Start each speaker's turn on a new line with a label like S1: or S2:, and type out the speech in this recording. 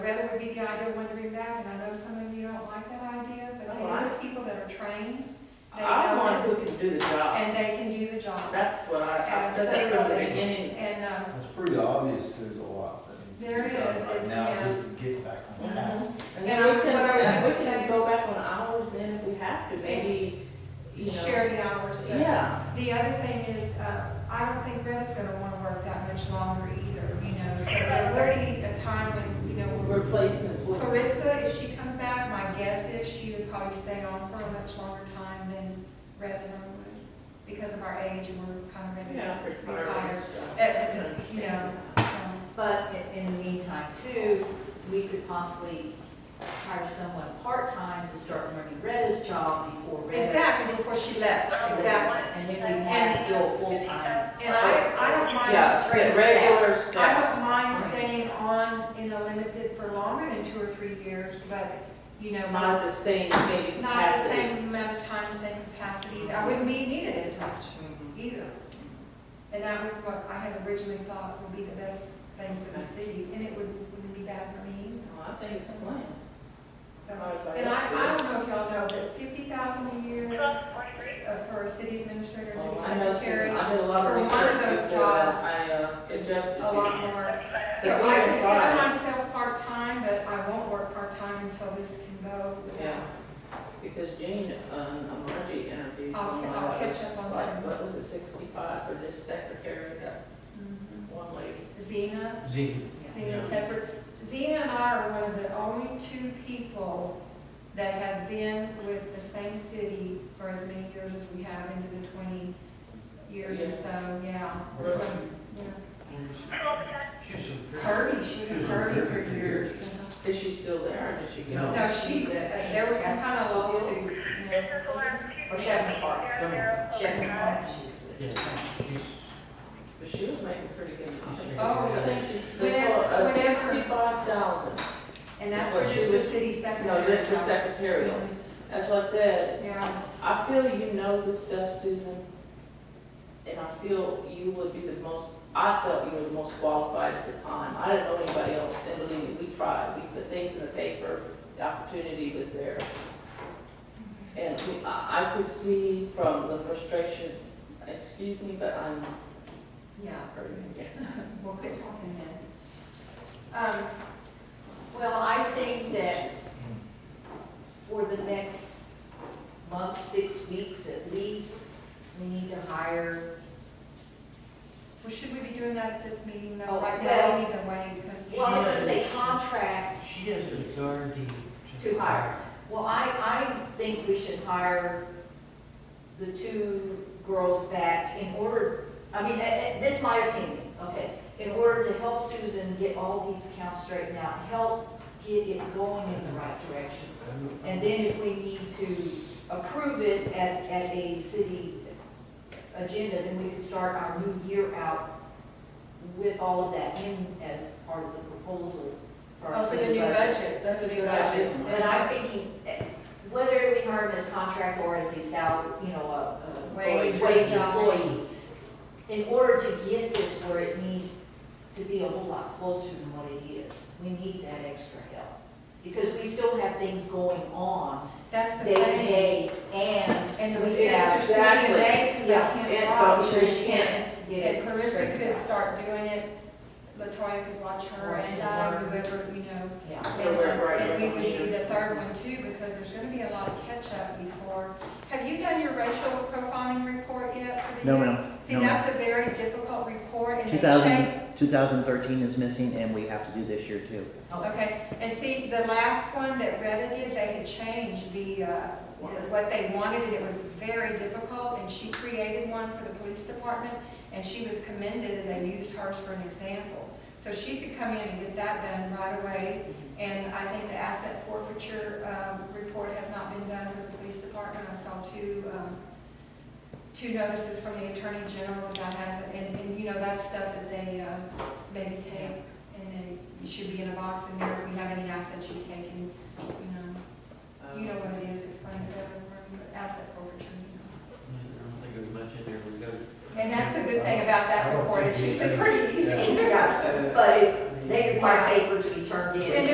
S1: Rather would be the ideal one to bring back, and I know some of you don't like that idea, but they
S2: Right.
S1: are people that are trained, they
S2: I want
S1: know,
S2: who can do the job.
S1: and they can do the job.
S2: That's what I, I
S1: And
S2: said that from the
S1: so-
S2: beginning.
S1: And, um,
S3: It's pretty obvious there's a lot that needs to be
S1: There
S3: done
S1: is,
S3: right
S1: it-
S3: now,
S1: yeah.
S3: just to get back on
S2: Mhm.
S3: task.
S2: And
S1: And
S2: then
S1: I-
S2: we
S1: what I
S2: can,
S1: was
S2: and we
S1: gonna
S2: can
S1: say-
S2: go back on hours then if we have to, maybe, you know.
S1: share the hours. but
S2: Yeah,
S1: The other thing is, uh, I don't think Greta's gonna wanna work that much longer either, you know, so there will be a time when, you know, we're-
S2: replacements would.
S1: Clarissa, if she comes back, my guess is she would probably stay on for a much longer time than Rhett and I would, because of our age and we're kind of ready to
S2: Yeah,
S1: retire.
S2: retirement.
S1: Uh, you know, um,
S4: But i- in the meantime too, we could possibly hire someone part-time to start learning Retta's job before Retta.
S1: Exactly, before she left, exactly.
S4: And then we have still full-time.
S1: And I, I don't mind.
S2: Yeah, set regular
S1: I
S2: staff.
S1: don't mind staying on in a limited for longer than two or three years, but, you know,
S2: Not
S1: not
S2: the same maybe
S1: the
S2: capacity.
S1: same amount of time, same capacity. I wouldn't be needed as much
S2: Mhm.
S1: either. And that was what I had originally thought would be the best thing for the city, and it would, wouldn't be bad for me.
S2: No, I think it's a plan.
S1: So, and I, I don't know if y'all know, but fifty thousand a year uh, for a city administrator, city
S2: Well, Oh, I know,
S1: secretary,
S2: some- I did a lot of
S1: for one of
S2: research
S1: those
S2: before that.
S1: jobs,
S2: I uh,
S1: it's
S2: suggested
S1: a
S2: to
S1: lot
S2: you.
S1: more.
S2: But
S1: So I
S2: even
S1: consider
S2: five,
S1: myself part-time, but I won't work part-time until this can go.
S2: Yeah, because Jane, um, Margie interviewed
S1: I'll
S2: someone.
S1: ca- I'll
S2: that
S1: catch
S2: was
S1: up on
S2: like,
S1: some.
S2: What was it, sixty-five for this secretary, that
S1: Mhm.
S2: one lady?
S1: Zena,
S3: Zeke,
S1: Zena
S3: Yeah.
S1: Tedford, Zena and I are one of the only two people that have been with the same city for as many years as we have into the twenty years or
S2: Yeah.
S1: so, yeah.
S3: Really?
S1: Yeah.
S3: she's a-
S1: Kirby, she was in
S3: She was in
S1: Kirby
S3: Kirby
S1: for
S3: for
S1: years.
S3: years.
S1: uh-huh.
S2: Is she still there, or did she
S3: No.
S2: go?
S1: No, she's, uh, there was some kind of lawsuit, yeah.
S4: Or Chevron Park.
S1: Oh,
S4: Chevron Park, she was with.
S3: Yeah, she's-
S2: But she was making pretty good money.
S1: Oh,
S2: I think it's
S1: whenever- whenever-
S2: uh, sixty-five thousand,
S1: And that's
S2: What
S1: for
S2: she
S1: just the
S2: was-
S1: city secretary.
S2: no, just for
S1: job.
S2: secretarial. That's what I said,
S1: Yeah,
S2: I feel you know the stuff, Susan, and I feel you would be the most, I felt you were the most qualified at the time. I didn't know anybody else, and believe me, we tried, we put things in the paper, the opportunity was there. And we- I, I could see from the frustration, excuse me, but I'm
S1: yeah,
S2: hurting again.
S1: we'll quit talking then. Um,
S4: Well, I think that for the next month, six weeks at least, we need to hire,
S1: well, should we be doing that at this meeting though?
S4: Oh,
S1: Right now,
S4: well-
S1: we need to wait because.
S4: well, I was gonna say contract
S5: She has authority to.
S4: to hire. Well, I, I think we should hire the two girls back in order, I mean, eh, eh, this is my opinion, okay? In order to help Susan get all these accounts straightened out, help get it going in the right direction. And then if we need to approve it at, at a city agenda, then we can start our new year out with all of that in as part of the proposal for our
S1: Oh, for the
S4: city
S1: new
S4: budget.
S1: budget, that's a new
S4: Good
S1: budget.
S4: idea. But I'm thinking, eh, whether we hire him as contract or as a sal, you know, a- a
S1: Wage,
S4: wage
S1: salary.
S4: employee, in order to get this where it needs to be a whole lot closer than what it is, we need that extra help. Because we still have things going on
S1: That's the
S4: day to
S1: thing.
S4: day and
S1: And the
S4: Yeah,
S1: mistakes are still being
S2: exactly.
S1: made because
S4: Yeah,
S1: I
S2: and
S1: can't watch.
S2: vouchers can't
S4: get
S1: And
S4: it
S1: Clarissa
S4: straightened
S1: could
S4: out.
S1: start doing it, Latoya could watch her
S4: Right,
S1: and
S4: and
S1: I,
S4: learn.
S1: whoever, you know.
S4: Yeah,
S2: Yeah, we're right,
S1: And we
S2: we're
S1: would be
S2: leaning.
S1: the third one too, because there's gonna be a lot of catch-up before. Have you done your racial profiling report yet for the
S6: No,
S1: year?
S6: ma'am.
S1: See,
S6: No, ma'am.
S1: that's a very difficult report and they
S6: 2000,
S1: check,
S6: 2013 is missing, and we have to do this year too.
S1: okay, and see, the last one that Retta did, they had changed the, uh, the- what they wanted and it was very difficult and she created one for the police department and she was commended and they used hers for an example. So she could come in and get that done right away and I think the asset forfeiture, um, report has not been done for the police department. I saw two, um, two notices from the attorney general about that, and, and you know, that's stuff that they, uh, maybe take, and then it should be in a box in there, if we have any assets you've taken, you know, you know what it is, explain it better, for me, but asset forfeiture, you know.
S5: I don't think there's much in there, we go.
S1: And that's the good thing about that report, it's usually pretty easy.
S4: yeah, but it- they require paper to be turned in.
S1: And